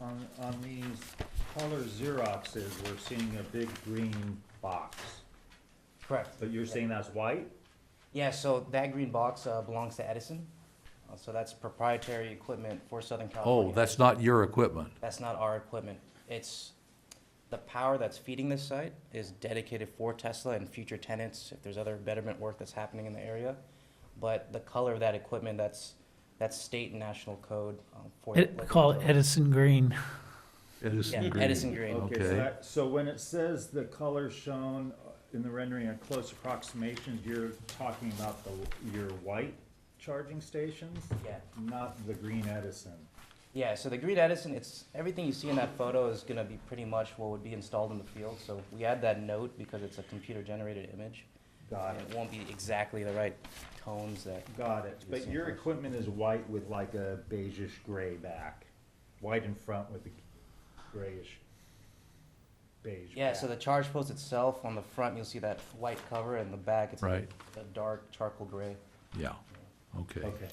on, on these color Xeroxes, we're seeing a big green box. Correct. But you're saying that's white? Yeah, so that green box uh, belongs to Edison. Uh, So that's proprietary equipment for Southern California. Oh, that's not your equipment. That's not our equipment. It's, the power that's feeding this site is dedicated for Tesla and future tenants, if there's other betterment work that's happening in the area. But the color of that equipment, that's, that's state and national code um, for. Ed- Call it Edison Green. Yeah, Edison Green. Edison Green. Okay, so Okay. that- So when it says the color shown in the rendering are close approximations, you're talking about the, your white charging stations? Yeah. Not the green Edison? Yeah, so the green Edison, it's, everything you see in that photo is gonna be pretty much what would be installed in the field. So we add that note because it's a computer generated image. Got and it, It won't be exactly the right tones that, got it. But your equipment is white with like a beigeish gray back, white in front with a grayish beige yeah, so the back. charge post itself, on the front, you'll see that white cover, and the back, it's the Right. the dark charcoal gray. Yeah, okay. Okay.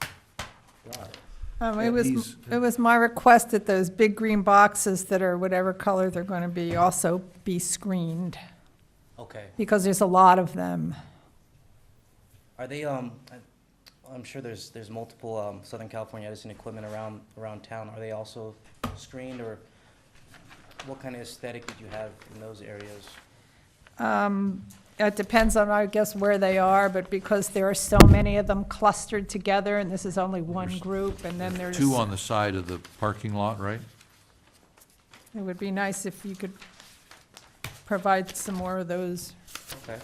Got it. Um, Yeah, it was, these- it was my request that those big green boxes that are whatever color they're gonna be also be screened, Okay. because there's a lot of them. Are they, um, I- I'm sure there's, there's multiple, um, Southern California Edison equipment around, around town. Are they also screened, or what kind of aesthetic did you have in those areas? Um, It depends on, I guess, where they are, but because there are so many of them clustered together, and this is only one There's group, and then there's. Two on the side of the parking lot, right? It would be nice if you could provide some more of those Okay.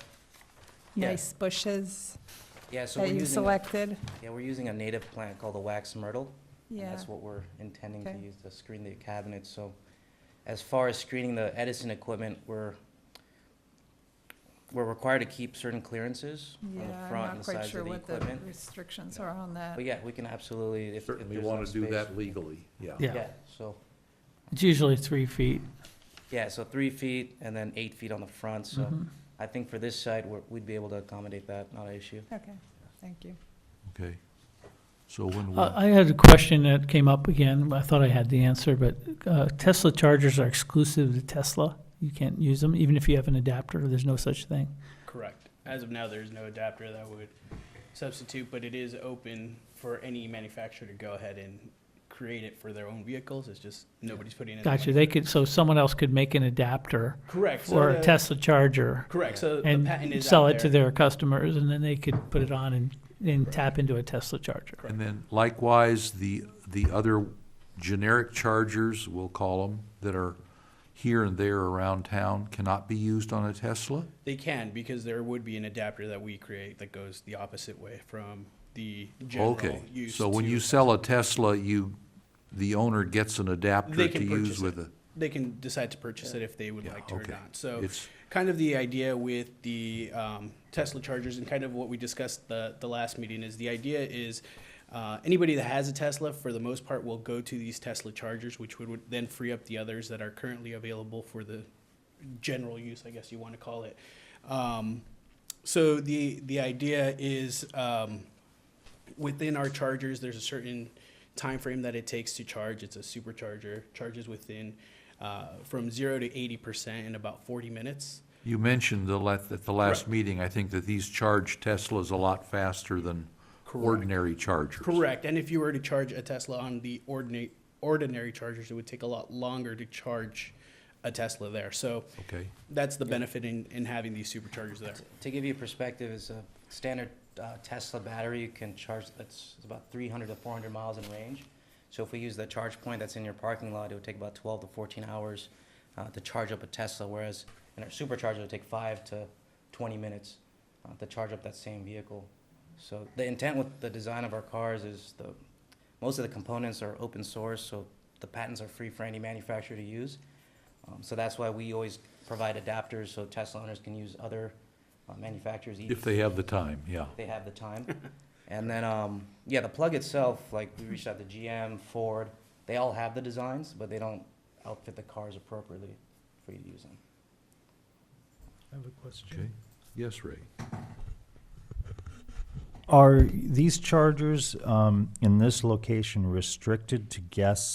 Yeah. nice bushes Yeah, so we're that you using, a- selected. yeah, we're using a native plant called the wax myrtle. and Yeah, That's what we're intending to Okay. use to screen the cabinets, so as far as screening the Edison equipment, we're, we're required to keep certain clearances on yeah, the I'm front and the not quite sides sure of the what the equipment. restrictions are on that. But yeah, we can absolutely, if, if there's Certainly enough want to do space. that legally, yeah. Yeah. Yeah, so, It's usually three feet. yeah, so three feet and then eight feet on the front, so Mm-hmm. Mhm. I think for this site, we're, we'd be able to accommodate that, not an issue. Okay, thank you. Okay. So when Uh, will, I had a question that came up again. I thought I had the answer, but uh, Tesla chargers are exclusive to Tesla. You can't use them, even if you have an adapter. There's no such thing. Correct. As of now, there's no adapter that would substitute, but it is open for any manufacturer to go ahead and create it for their own vehicles. It's just nobody's putting it. Gotcha. They could, so someone else could make an adapter Correct. so for a the- Tesla charger Correct. So the patent and is sell out it to there. their customers, and then they could put it on and, and tap into a Tesla charger. and then likewise, the, the other generic chargers, we'll call them, that are here and there around town cannot be used on a Tesla? They can because there would be an adapter that we create that goes the opposite way from the general Okay, use. so when to- you sell a Tesla, you, the owner gets an adapter They to can use purchase with it. it? They can decide to purchase it if they would like to or okay. not. So It's- kind of the idea with the um, Tesla chargers and kind of what we discussed the, the last meeting is the idea is uh, anybody that has a Tesla, for the most part, will go to these Tesla chargers, which would, would then free up the others that are currently available for the general use, I guess you want to call it. Um, so the the idea is. Um, within our chargers, there's a certain time frame that it takes to charge. It's a supercharger. Charges within uh, from zero to eighty percent in about forty minutes. You mentioned the, la- at the last Correct. meeting, I think that these charge Teslas a lot faster than Correct. ordinary chargers. Correct. And if you were to charge a Tesla on the ordinary ordinary chargers, it would take a lot longer to charge a Tesla there. So Okay, that's the benefit in, in having these superchargers there. To- To give you a perspective, it's a standard uh, Tesla battery, you can charge, it's it's about three hundred to four hundred miles in range. So if we use the charge point that's in your parking lot, it would take about twelve to fourteen hours uh, to charge up a Tesla, whereas in our supercharger, it would take five to twenty minutes uh, to charge up that same vehicle. So the intent with the design of our cars is the, most of the components are open source, so the patents are free for any manufacturer to use. Um, So that's why we always provide adapters, so Tesla owners can use other uh, manufacturers. if they have the time, yeah. They have the time. And then, um, yeah, the plug itself, like, we reached out to GM, Ford, they all have the designs, but they don't outfit the cars appropriately for you to use them. I have a question. Okay, yes, Ray. Are these chargers um, in this location restricted to guests